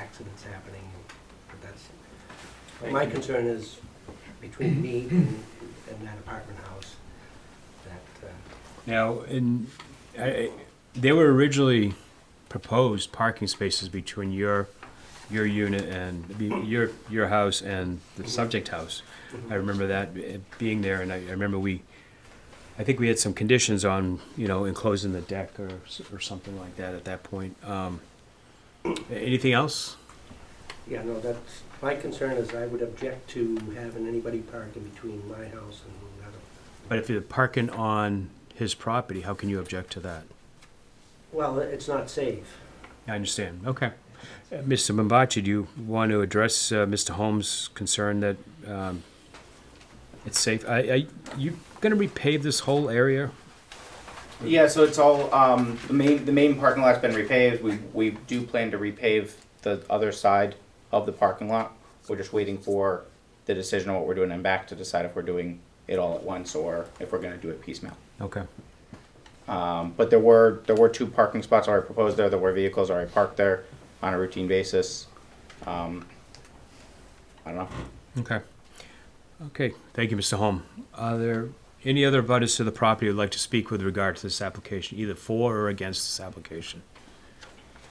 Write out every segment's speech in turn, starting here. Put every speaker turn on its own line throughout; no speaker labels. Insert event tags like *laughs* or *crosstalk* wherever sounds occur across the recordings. accidents happening, but that's,
Thank
my
you.
concern is between me and, and that apartment house, that, uh,
Now, in, I- I, they were originally proposed parking spaces between your, your unit and, be- your, your house and the subject house. I remember that eh, being there, and I, I remember we, I think we had some conditions on, you know, enclosing the deck or, s- or something like that at that point. Um, Anything else?
yeah, no, that's, my concern is I would object to having anybody park in between my house and the other.
But if you're parking on his property, how can you object to that?
Well, it's not safe.
I understand, okay. Uh, Mr. Mombachi, do you want to address uh, Mr. Holmes' concern that um, it's safe? I, I, you gonna repave this whole area?
Yeah, so it's all, um, the main, the main parking lot's been repaved, we, we do plan to repave the other side of the parking lot. We're just waiting for the decision on what we're doing and back to decide if we're doing it all at once or if we're gonna do it piecemeal.
Okay,
Um, but there were, there were two parking spots already proposed there, there were vehicles already parked there on a routine basis. Um, I don't know,
okay. Okay, thank you, Mr. Holm. Are there any other abutters to the property who'd like to speak with regard to this application, either for or against this application?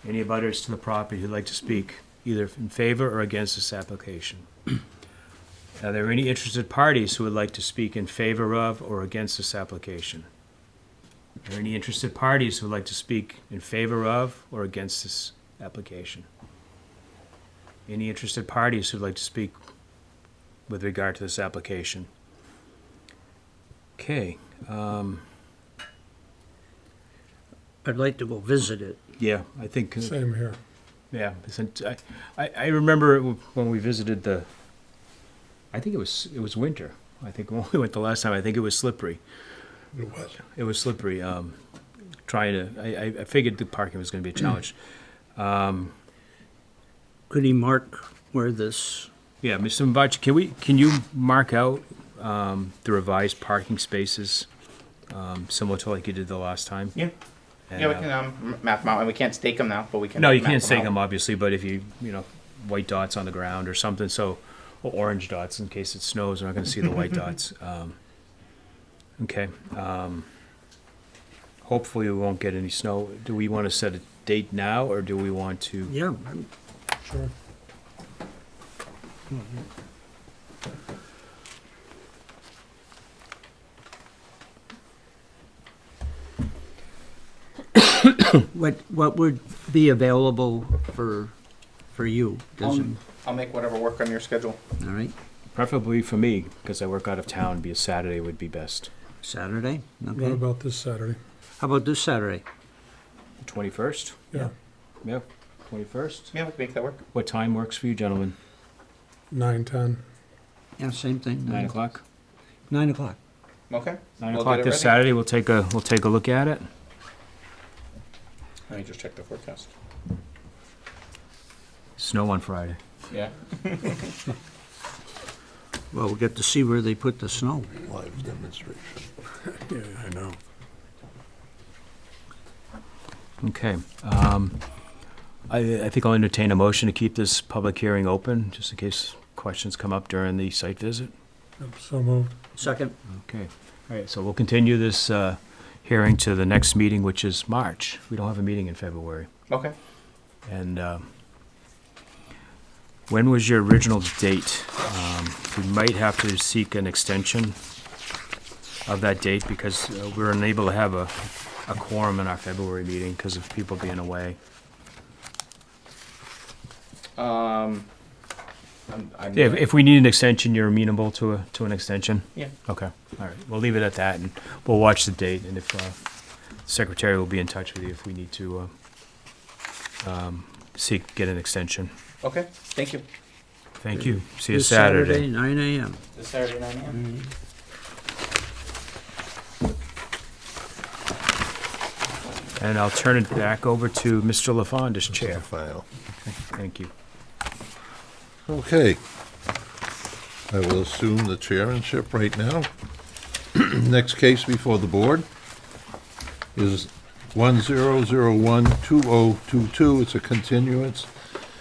Any abutters to the property who'd like to speak, either in favor or against this application? *clears throat* Are there any interested parties who would like to speak in favor of or against this application? Are there any interested parties who would like to speak in favor of or against this application? Any interested parties who'd like to speak with regard to this application? Okay,
I'd like to go visit it.
yeah, I think. uh,
Same here.
Yeah, since I, I, I remember it w- when we visited the. I think it was it was winter. I think *laughs* when we went the last time, I think it was slippery.
It was.
It was slippery. Um, trying to, I, I- I figured the parking was going to be a challenge. *clears throat*
Could he mark where this,
Yeah, Mr. Mbachi, can we can you mark out um, the revised parking spaces, um, similar to like you did the last time?
yeah,
And,
yeah, we
uh,
can, um, map them out, and we can't stake them now, but we can.
No, you
map
can't stake
out.
them, obviously, but if you, you know, white dots on the ground or something, so, or orange dots in case it snows, we're not gonna see the white dots. Um, Okay. um, Hopefully, we won't get any snow. Do we want to set a date now, or do we want to?
yeah,
Sure.
what, what would be available for, for you? Does
Um, I'll make whatever work on your schedule.
it- All right,
Preferably for me, because I work out of town, be a Saturday would be best.
Saturday,
What
okay.
about this Saturday?
How about this Saturday?
Twenty-first?
Yeah,
Yeah, twenty-first.
Yeah, we can make that work.
What time works for you, gentlemen?
nine, ten.
Yeah, same thing.
Nine o'clock?
Nine o'clock.
Okay.
Nine
We'll
o'clock
get it
this
ready.
Saturday, we'll take a, we'll take a look at it.
Let me just check the forecast.
Snow on Friday.
Yeah.
Well, we'll get to see where they put the snow.
Live demonstration. Yeah, I know.
Okay. um, I I think I'll entertain a motion to keep this public hearing open, just in case questions come up during the site visit.
Yep, So moved.
Second,
Okay. All right, so we'll continue this uh, hearing to the next meeting, which is March. We don't have a meeting in February.
Okay.
And um, when was your original date? Um, We might have to seek an extension of that date because uh, we're unable to have a a quorum in our February meeting because of people being away.
Um, I'm, I'm
If, if we need an extension, you're amenable to a, to an extension?
yeah.
Okay, all right, we'll leave it at that, and we'll watch the date, and if, uh, secretary will be in touch with you if we need to, uh, um, seek, get an extension.
Okay. Thank you.
Thank you, see you
this
Saturday.
Saturday, nine AM.
This Saturday nine a.m.
And I'll turn it back over to Mr. LaFond as chair.
file.
Thank you.
Okay. I will assume the chairmanship right now. *clears throat* Next case before the board oh is 10012022. It's a continuance